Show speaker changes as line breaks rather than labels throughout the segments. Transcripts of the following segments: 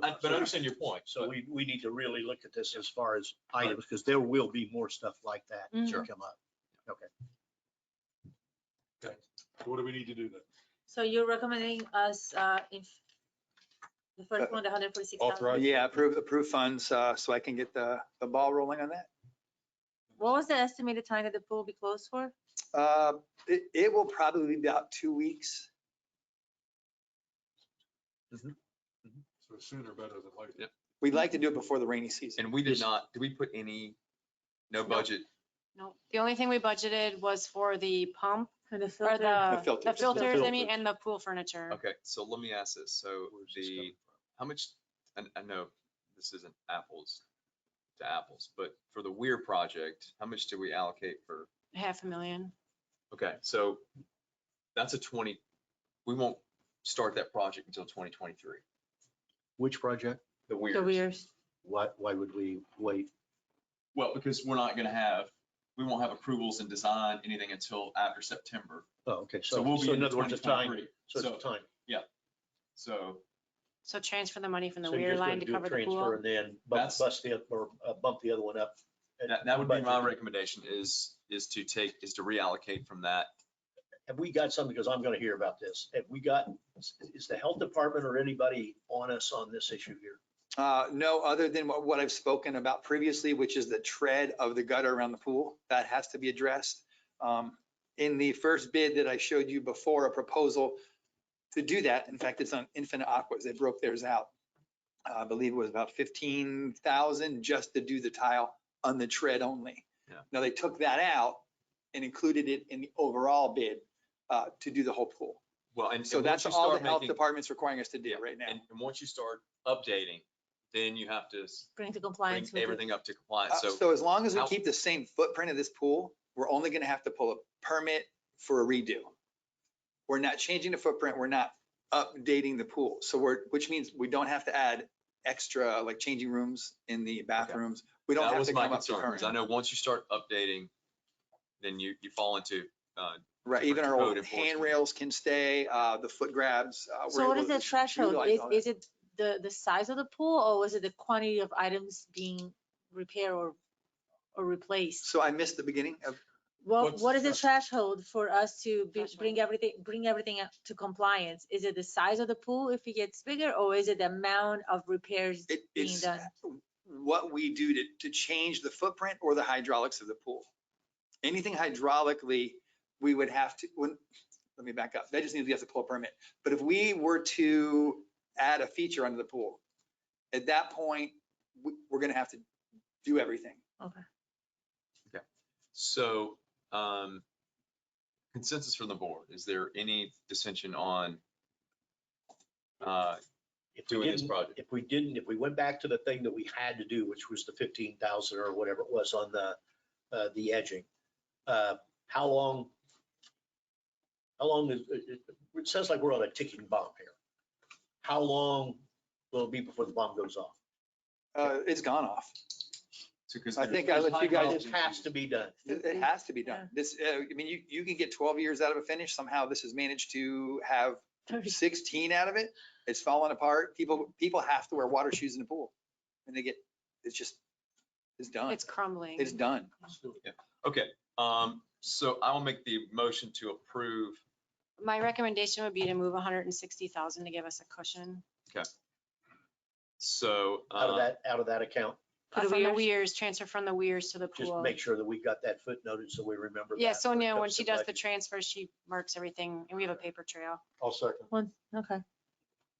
but I understand your point,
So
so,
we, we need to really look at this as far as items, because there will be more stuff like that
Sure.
Mm-hmm.
to come up.
What do we need to do then?
So you're recommending us, uh, in the first one, the hundred forty-six thousand?
Authorize-
Yeah, approve, approve funds, uh, so I can get the, the ball rolling on that.
What was the estimated time that the pool will be closed for?
Uh, it, it will probably be about two weeks.
So sooner better than later.
Yeah.
We'd like to do it before the rainy season.
And we did not, did we put any, no budget?
No, the only thing we budgeted was for the pump,
For the
or
filter?
The
the,
filters.
the filters, I
filters.
mean, and the pool furniture.
Okay, so let me ask this. So
Where's this
the,
coming
how much, and I know this isn't apples to apples, but for the Weir project, how much do we allocate for?
Half a million.
Okay, so that's a twenty, we won't start that project until twenty twenty-three,
Which project?
the Weirs.
The weirs.
Why, why would we wait?
Well, because we're not gonna have, we won't have approvals and design anything until after September.
Oh, okay,
So
so,
we'll be
so in
in
other words,
twenty
the time,
twenty-three.
so it's
So-
the time.
So
So transfer the money from the
So you're
weir
just gonna
line to
do a
cover the
transfer
pool.
And then bump,
That's-
bust the, or uh, bump the other one up.
that, that would be my
Budget.
recommendation is, is to take, is to reallocate from that.
Have we got something, because I'm gonna hear about this, have we got, is the health department or anybody on us on this issue here?
Uh, no, other than what, what I've spoken about previously, which is the tread of the gutter around the pool, that has to be addressed. Um, in the first bid that I showed you before, a proposal to do that, in fact, it's on Infinite Aquas, they broke theirs out. I believe it was about fifteen thousand just to do the tile on the tread only.
Yeah.
Now, they took that out and included it in the overall bid, uh, to do the whole pool.
Well, and.
So
and once
that's
you
all the
start
health
making-
department's requiring us to do right now.
And, and once you start updating, then you have to s-
Bring to
bring
compliance. with the-
everything up to compliance.
Uh,
So
So as long as we
how-
keep the same footprint of this pool, we're only gonna have to pull a permit for a redo. We're not changing the footprint, we're not updating the pool. So we're, which means we don't have to add extra, like changing rooms in the bathrooms. We don't
that
have
was
to
my
come up to
concern, because I
current.
know once you start updating, then you, you fall into, uh,
Right, even our
code
old
enforcement.
handrails can stay, uh, the foot grabs. uh, we're
So what
able
is the
to
threshold?
utilize
Is,
all that.
is it the, the size of the pool or was it the quantity of items being repaired or, or replaced?
So I missed the beginning of,
Well,
What's
what
the
is the threshold for us to be-
Threshold.
bring everything, bring everything up to compliance? Is it the size of the pool if it gets bigger, or is it the amount of repairs
it,
being
it's
done?
what we do to, to change the footprint or the hydraulics of the pool. Anything hydraulically, we would have to, when, let me back up. That just means we have to pull a permit. But if we were to add a feature under the pool, at that point, we, we're gonna have to do everything.
so, um, consensus from the board, is there any dissension on, uh,
If we
doing this
didn't-
project?
If we didn't, if we went back to the thing that we had to do, which was the fifteen thousand or whatever it was on the, uh, the edging, uh, how long? How long is, it, it- it sounds like we're on a ticking bomb here. How long will it be before the bomb goes off?
Uh, it's gone off.
Because
I think I let you guys,
It has to be done.
it it has to be done. This, uh, I mean, you, you can get twelve years out of a finish. Somehow this has managed to have sixteen out of it. It's falling apart. People, people have to wear water shoes in the pool. And they get, it's just, it's done.
It's crumbling.
It's done.
from?
Okay, um, so I will make the motion to approve
My recommendation would be to move hundred and sixty thousand to give us a cushion.
So,
Out of
uh,
that, out of that account,
Uh,
For the
From the
weirs?
weirs, transfer from the weirs to the
just
pool.
make sure that we got that footnoted so we remember.
Uh, Yeah,
that it
Sonia, when
comes
she
to
does the
budget.
transfer, she marks everything and we have a paper trail.
I'll second.
One, okay.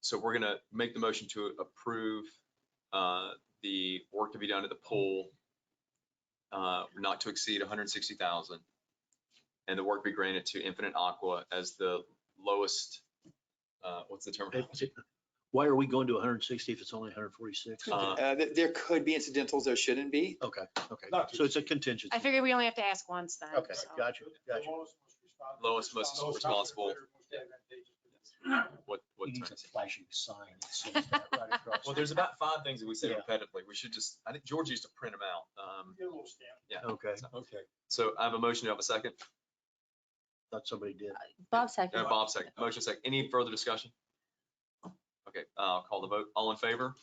so we're gonna make the motion to approve, uh, the work to be done at the pool, uh, not to exceed hundred and sixty thousand. And the work be granted to Infinite Aqua as the lowest, uh, what's the term?
Why are we going to hundred and sixty if it's only hundred and forty-six?
Uh,
Uh, th- There could be incidentals, there shouldn't be.
Okay, okay.
Not
So it's a contingency.
I figured we only have to ask once then.
Okay,
so.
gotcha, gotcha.
Lowest, most responsible. What, what
He needs
term?
a flashing sign. that says that right across.
Well, there's about five things that we say
Yeah.
repetitively. We should just, I think George used to print them out. Um,
Okay,
Okay.
so I have a motion. Do I have a second?
thought somebody did.
Bob second.
Uh, Bob second. Motion second. Any further discussion? Okay, uh, I'll call the vote. All in favor?